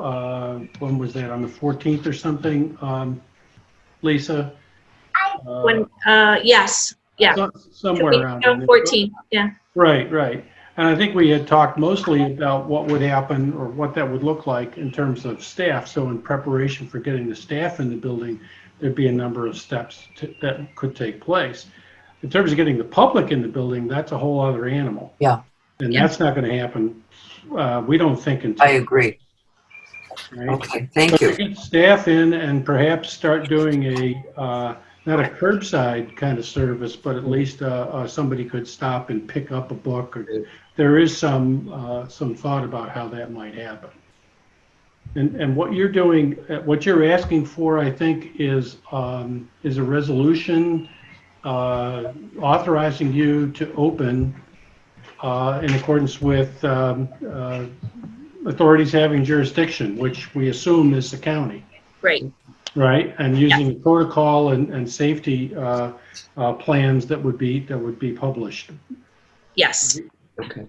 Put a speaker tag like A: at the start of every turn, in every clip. A: uh, when was that, on the 14th or something, um, Lisa? Uh,
B: When, uh, yes, yeah.
A: so-
B: We-
A: Somewhere around.
B: no,
A: there.
B: 14, yeah.
A: Right, right. And I think we had talked mostly about what would happen or what that would look like in terms of staff. So in preparation for getting the staff in the building, there'd be a number of steps to- that could take place. In terms of getting the public in the building, that's a whole other animal.
C: Yeah.
A: And
B: Yeah.
A: that's not going to happen, uh, we don't think
C: I
A: until.
C: agree.
A: right?
C: Okay, thank
A: But
C: you.
A: to get staff in and perhaps start doing a, uh, not a curbside kind of service, but at least uh, uh, somebody could stop and pick up a book. or There is some, uh, some thought about how that might happen. And, and what you're doing, uh, what you're asking for, I think, is, um, is a resolution uh, authorizing you to open uh, in accordance with um, uh, authorities having jurisdiction, which we assume is the county,
B: Great,
A: right? And using protocol and, and safety uh, uh, plans that would be, that would be published.
B: yes.
A: Mm-hmm.
D: Okay.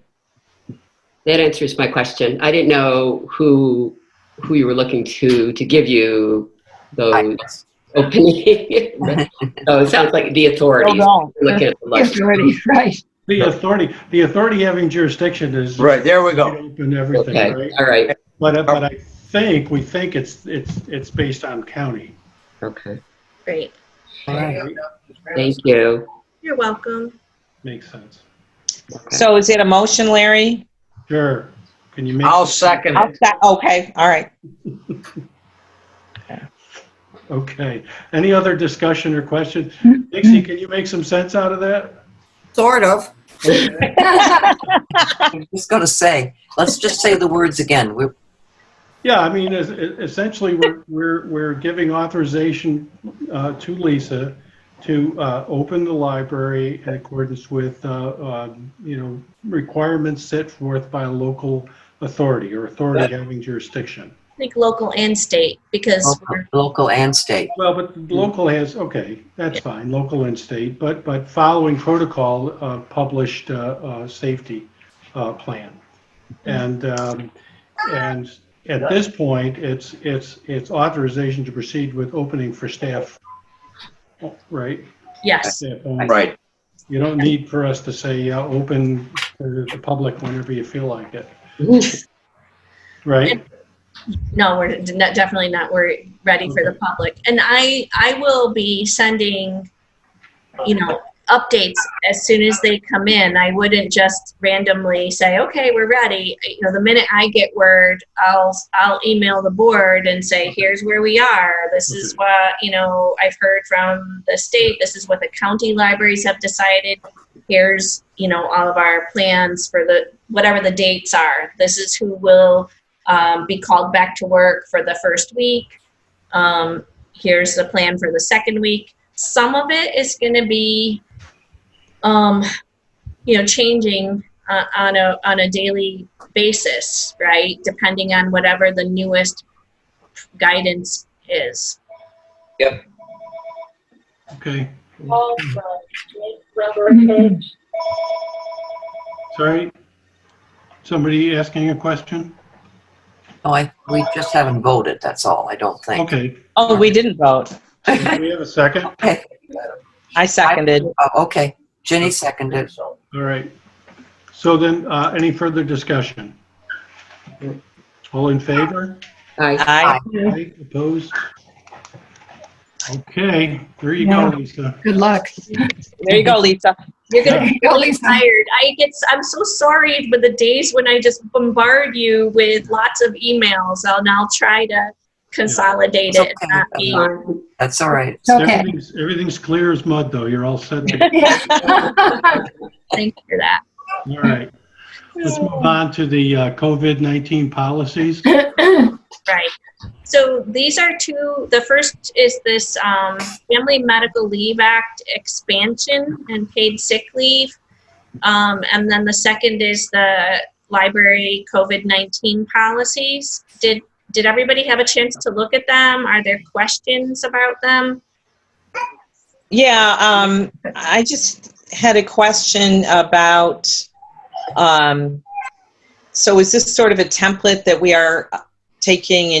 D: That answers my question. I didn't know who, who you were looking to, to give you those opening. So it sounds like the authorities.
E: Hold
D: You're Looking at the
E: on.
D: list.
E: It's already right.
A: The authority, the authority having jurisdiction is.
F: Right, there we go.
A: Open everything,
D: Okay,
A: right?
D: all right,
A: But, uh, but I think, we think it's, it's, it's based on county.
D: okay.
B: Great.
D: Thank you.
B: You're welcome.
A: Makes sense.
D: Okay.
G: So is it a motion, Larry?
A: Sure. Can you make?
F: I'll second
G: I'll
F: it.
G: stop- Okay, all right.
A: Okay. Any other discussion or questions? Dixie, can you make some sense out of that?
C: Sort of. I'm just going to say, let's just say the words again. We're,
A: Yeah, I mean, es- essentially, we're, we're, we're giving authorization uh, to Lisa to uh, open the library in accordance with, uh, um, you know, requirements set forth by a local authority or authority having jurisdiction.
B: I think local and state, because
C: local-
B: we're,
C: local and state.
A: Well, but local has, okay, that's fine, local and state, but, but following protocol, uh, published, uh, uh, safety, uh, plan. And, um, and at this point, it's, it's, it's authorization to proceed with opening for staff. Right?
B: yes,
A: Staff only.
F: Right.
A: You don't need for us to say, uh, open to the public whenever you feel like it, right?
B: no, we're d- not- definitely not, we're ready for the public. And I, I will be sending, you know, updates as soon as they come in. I wouldn't just randomly say, okay, we're ready. You know, the minute I get word, I'll, I'll email the board and say, here's where we are. This is
A: Okay.
B: what, you know, I've heard from the state. This is what the county libraries have decided. Here's, you know, all of our plans for the, whatever the dates are. This is who will um, be called back to work for the first week. Um, here's the plan for the second week. Some of it is going to be, um, you know, changing uh, on a on a daily basis, right? Depending on whatever the newest guidance is.
A: Okay,
E: Number
A: sorry? Somebody asking a question?
C: Oh, I, we just haven't voted, that's all, I don't think.
A: Okay,
G: Oh, we didn't vote.
A: do we have a second?
G: I seconded.
C: Oh, Okay, Ginny seconded.
A: All right. So then, uh, any further discussion? All in favor?
D: Aye.
G: Aye.
A: Aye. Opposed? Okay, there you go, Lisa.
E: Good luck.
G: There you go, Lisa.
B: You're gonna
E: There
B: be
E: you go,
B: really
E: Lisa.
B: tired. I get. s- I'm so sorry for the days when I just bombard you with lots of emails, and I'll try to consolidate it.
C: It's okay.
B: and not be-
C: That's all right.
E: It's okay.
A: Everything's- Everything's clear as mud, though. You're all set. to-
B: Thank you for that.
A: All right. Let's move on to the uh, COVID-19 policies.
B: Right. So these are two, the first is this um, Family Medical Leave Act expansion and paid sick leave. Um, And then the second is the library COVID-19 policies. Did, did everybody have a chance to look at them? Are there questions about them?
G: Yeah, um, I just had a question about, um, so is this sort of a template that we are taking